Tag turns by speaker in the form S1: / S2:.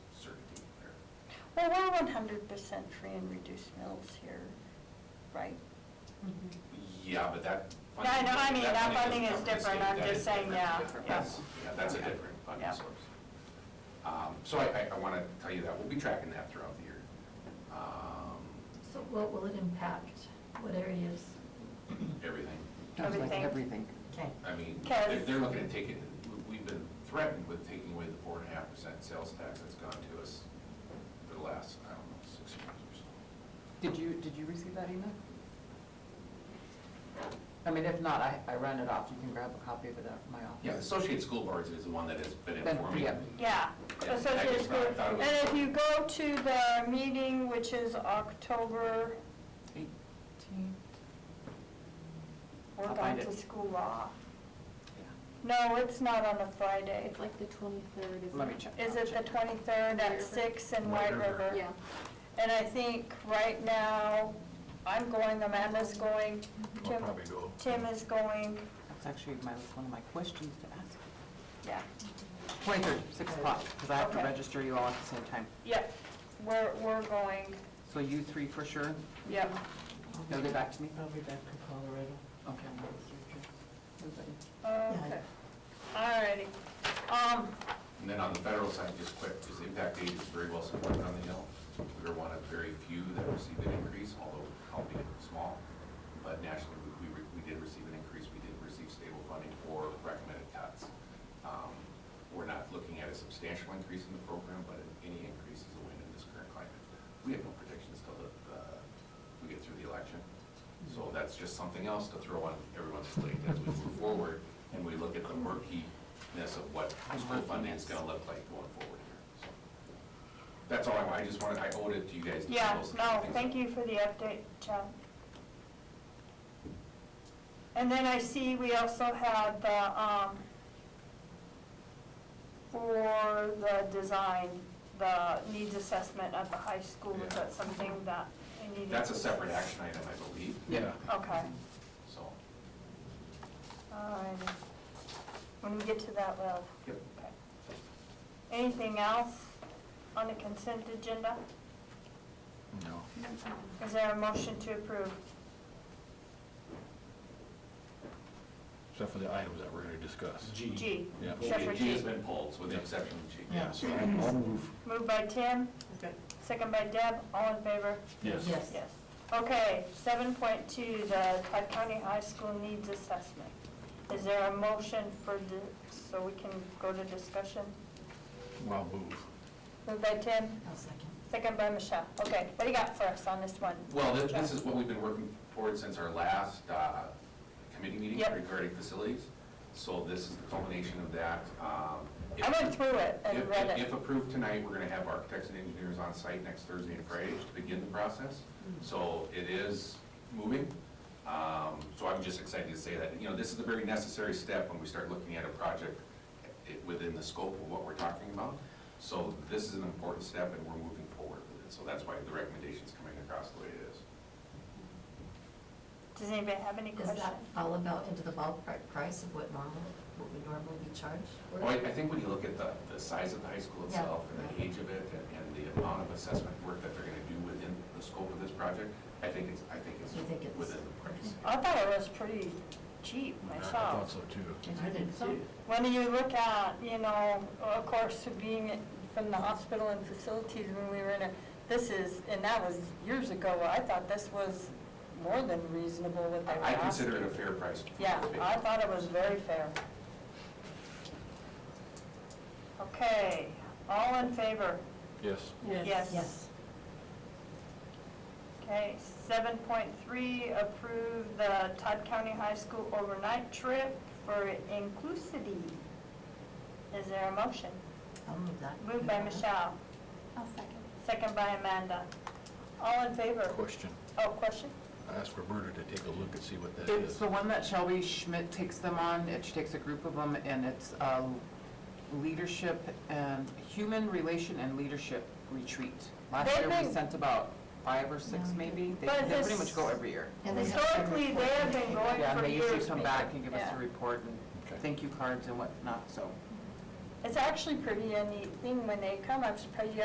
S1: They were one hundred percent free and reduced meals here, right?
S2: Yeah, but that.
S1: No, I know, I mean, that funding
S2: comes from
S1: is
S2: the
S1: different,
S2: state.
S1: I'm
S2: That
S1: just
S2: is
S1: saying,
S2: different.
S1: yeah,
S2: That's different.
S1: yeah.
S2: That's, yeah, that's a
S1: Yeah.
S2: different
S1: Yeah.
S2: funding source. Um, So I, I, I want to tell you that, we'll be tracking that throughout the year. Um,
S3: So what will it impact? What areas?
S2: Everything,
S4: Sounds like
S1: Everything.
S4: everything.
S3: Okay.
S2: I mean,
S1: Kev?
S2: they're, they're looking at taking, we- we've been threatened with taking away the four and a half percent sales tax that's gone to us for the last, I don't know, six years or so.
S4: Did you, did you receive that email? I mean, if not, I, I ran it off, you can grab a copy of it out from my
S2: Yeah, the
S4: office.
S2: Associated School Boards is the one that has been
S4: Been-
S2: informing.
S4: yeah.
S1: Yeah,
S2: Yeah, I
S1: Associated
S2: just
S1: School.
S2: thought- thought it
S1: And
S2: was-
S1: if you go to the meeting, which is October,
S4: Eighteen.
S1: we're
S4: I'll
S1: back
S4: find
S1: to
S4: it.
S1: school law.
S4: Yeah.
S1: No, it's not on a Friday.
S5: It's like the twenty-third, isn't it?
S4: Let me check.
S1: Is it the
S4: I'll check.
S1: twenty-third
S5: White
S1: at
S5: River?
S1: six in
S2: White
S1: White
S2: River.
S1: River?
S5: Yeah.
S1: And I think right now, I'm going, Amanda's going,
S2: Mm-hmm. I'll
S1: Tim,
S2: probably go.
S1: Tim is going,
S4: That's actually my, one of my questions to ask.
S1: yeah.
S4: Twenty-third, six o'clock, because I have to
S1: Okay.
S4: register you all at the same time.
S1: Yep, we're, we're going,
S4: So you three for sure,
S1: yep.
S4: they'll get back to me?
S6: I'll be back from Colorado.
S4: Okay.
S1: Okay, all righty. Um,
S2: And then on the federal side, just quick, because Impact Aid is very well supported on the Hill. We were one of very few that received an increase, although albeit small. But nationally, we, we re- we did receive an increase, we did receive stable funding for recommended cuts. Um, We're not looking at a substantial increase in the program, but any increase is a win in this current climate. We have no predictions till the, uh, we get through the election. So that's just something else to throw on everyone's plate as we move forward and we look at the murkiness of what school funding is gonna look like going forward here. So That's all I, want. I just wanted, I owed it to you guys. to
S1: yeah,
S2: those
S1: no,
S2: things.
S1: thank you for the update, John. And then I see we also had the, um, for the design, the needs assessment at the high school, is that something that I needed?
S2: That's a
S1: to-
S2: separate action item, I believe.
S4: Yeah.
S1: Okay,
S2: So,
S1: all right. When we get to that, we'll.
S2: yep.
S1: Okay. Anything else on the consent agenda?
S2: No.
S1: Is there a motion to approve?
S7: Except for the items that we're going to discuss.
S6: G.
S1: G.
S7: Yeah.
S1: Separate
S2: G
S1: G.
S2: has been pulled, with the exception of G.
S6: Yeah.
S7: So I'll move.
S1: Moved by Tim,
S6: Okay.
S1: second by Deb, all in favor?
S7: Yes.
S3: Yes.
S1: Yes. Okay, seven point two, the Todd County High School Needs Assessment. Is there a motion for, di- so we can go to discussion?
S7: I'll move.
S1: Moved by Tim,
S3: I'll second.
S1: second by Michelle. Okay, what do you got for us on this one?
S2: Well, this, this is what we've been working toward since our last uh, committee meeting
S1: Yep.
S2: regarding facilities. So this is the culmination of that. Um, if-
S1: I went through it and
S2: If-
S1: read
S2: if-
S1: it.
S2: If approved tonight, we're going to have architects and engineers on site next Thursday and Friday to begin the process.
S1: Mm-hmm.
S2: So it is moving. Um, So I'm just excited to say that, you know, this is a very necessary step when we start looking at a project it- within the scope of what we're talking about. So this is an important step and we're moving forward with it. So that's why the recommendation's coming across the way it is.
S1: Does anybody have any
S3: Is
S1: questions?
S3: that all about into the ballpark price of what normal, what we normally be charged? for?
S2: Well, I I think when you look at the, the size of the high school
S3: Yeah.
S2: itself and the age of it and- and the amount of assessment work that they're gonna do within the scope of this project, I think it's, I think
S3: You think it's-
S2: it's within the price.
S1: I thought it was pretty cheap
S7: I thought
S1: myself.
S7: so too.
S3: I did too.
S1: When you look at, you know, of course, being from the hospital and facilities when we were in it, this is, and that was years ago, I thought this was more than reasonable what they were
S2: I consider it
S1: asking.
S2: a fair price. for
S1: Yeah,
S2: the big-
S1: I thought it was very fair. Okay, all in favor?
S7: Yes.
S3: Yes.
S1: Okay, seven point three, approve the Todd County High School overnight trip for inclusivity. Is there a motion?
S3: I'll move that.
S1: Moved by Michelle,
S5: I'll second.
S1: second by Amanda. All in favor?
S7: Question.
S1: Oh, question?
S7: I asked Roberta to take a look and see what that
S4: It's
S7: is.
S4: the one that Shelby Schmidt takes them on, and she takes a group of them, and it's a leadership and, human relation and leadership retreat. Last
S1: They've
S4: year, we
S1: been-
S4: sent about five or six,
S3: Yeah.
S4: maybe. They
S1: But
S4: they pretty
S1: this-
S4: much go every year.
S3: And they have to
S1: Historically, they have been
S3: report.
S1: going
S4: Yeah, and
S1: for
S4: they usually
S1: years.
S4: come back and give us
S1: Yeah.
S4: a report
S7: Okay.
S4: and thank you cards and whatnot, so.
S1: It's actually pretty a neat thing when they come, I'm surprised you